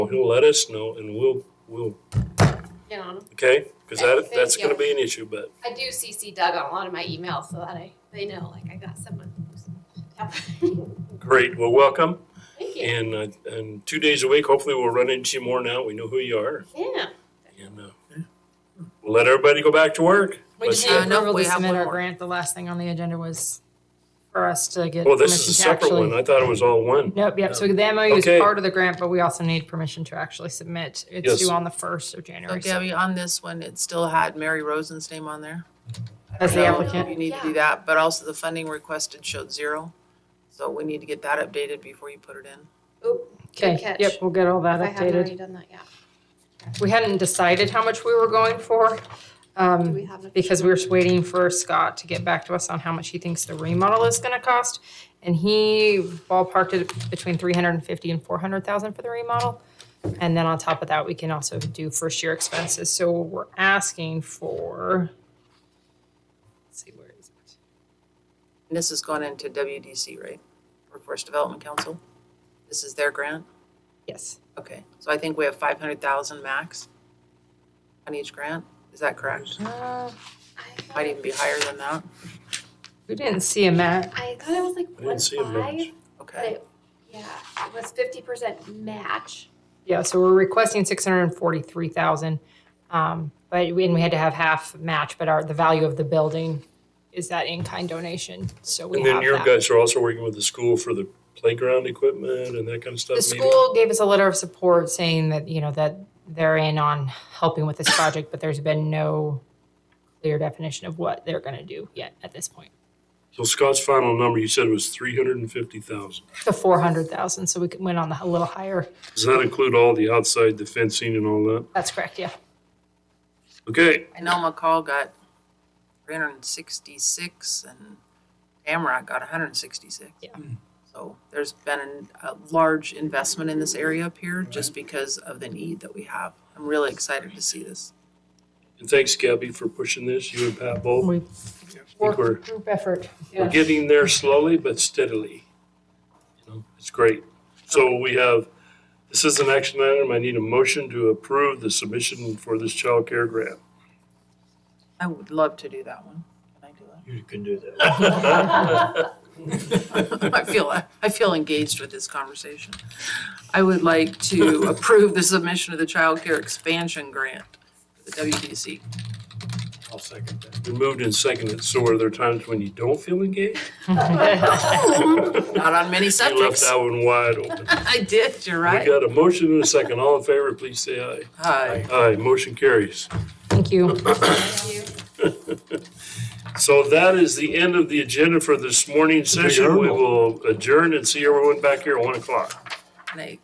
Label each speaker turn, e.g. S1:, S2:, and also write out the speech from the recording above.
S1: Well, he'll let us know and we'll, we'll,
S2: get on 'em.
S1: okay? Because
S2: Okay,
S1: that,
S2: thank
S1: that's gonna
S2: you.
S1: be an issue, but
S2: I do CC Doug on a lot of my emails so that I, they know, like, I got someone. who's
S1: great, well, welcome.
S2: Thank you.
S1: And, uh, and two days a week, hopefully we'll run into you more now. We know who you are.
S2: Yeah.
S1: And, uh, we'll let everybody go back to work.
S2: We
S1: Let's
S2: just
S1: see.
S2: need
S3: Uh, no,
S2: approval
S3: we
S2: to
S3: have
S2: submit
S3: one
S2: our
S3: more.
S2: grant. The last thing on the agenda was for us to get
S1: Well, this is a
S2: permission to
S1: separate one.
S2: actually.
S1: I thought it was all one.
S2: Nope, yep, so the MOU is
S1: Okay.
S2: part of the grant, but we also need permission to actually submit.
S1: Yes.
S2: It's due on the first of
S3: So
S2: January. so
S3: Gabby, on this one, it still had Mary Rosen's name on there.
S2: As the
S3: So
S2: applicant,
S3: You need to do that, but also the funding requested showed zero. So we need to get that updated before you put it in.
S4: Good
S2: okay,
S4: catch.
S2: yep, we'll get all that
S4: I haven't
S2: updated.
S4: already done that yet.
S2: We hadn't decided how much we were going for. um,
S4: Do we have? an-
S2: because we were just waiting for Scott to get back to us on how much he thinks the remodel is gonna cost. And he ballparked it between three hundred and fifty and four hundred thousand for the remodel. And then on top of that, we can also do first year expenses, so we're asking for. Let's see, where is it?
S3: And this is going into WDC, right? Workforce Development Council. This is their grant.
S2: Yes,
S3: Okay, so I think we have five hundred thousand max on each grant. Is that correct?
S2: uh,
S4: I
S3: Might
S4: thought-
S3: even be higher than that.
S2: we didn't see a match.
S4: I thought it was like
S1: I didn't
S4: one
S1: see a match.
S4: five, but
S3: Okay,
S4: it, yeah, it was fifty percent match.
S2: Yeah, so we're requesting six hundred and forty-three thousand. Um, but, we- and we had to have half match, but our, the value of the building is that in-kind donation, so we
S1: And
S2: have that.
S1: then your guys are also working with the school for the playground equipment and that kind of stuff.
S2: The
S1: maybe?
S2: school gave us a letter of support saying that, you know, that they're in on helping with this project, but there's been no clear definition of what they're gonna do yet at this point.
S1: So Scott's final number, you said was three hundred and fifty thousand.
S2: The four hundred thousand, so we could- went on the, a little higher.
S1: Does that include all the outside, the fencing and all that?
S2: That's correct, yeah.
S1: Okay,
S3: I know McCall got three hundred and sixty-six and Tamarack got hundred and sixty-six.
S2: Yeah.
S3: So there's been an- a large investment in this area up here just because of the need that we have. I'm really excited to see this.
S1: and thanks Gabby for pushing this, you and Pat both.
S2: We
S1: think we're-
S2: work group effort.
S1: We're getting there slowly but steadily. You know, It's great. So we have, this is an action item. I need a motion to approve the submission for this child care grant.
S3: I would love to do that one. Can I do that?
S5: You can do that.
S3: I feel, I feel engaged with this conversation. I would like to approve the submission of the Child Care expansion grant, for the WDC.
S5: I'll second that.
S1: We moved and seconded. So are there times when you don't feel engaged?
S3: Not on many
S1: You left
S3: subjects.
S1: that one wide open.
S3: I did, you're
S1: We
S3: right.
S1: got a motion and a second. All in favor, please say aye.
S3: Hi.
S1: Aye, motion carries.
S2: Thank you.
S1: So that is the end of the agenda for this morning's session. We will adjourn and see everyone back here at one o'clock.
S3: Nate.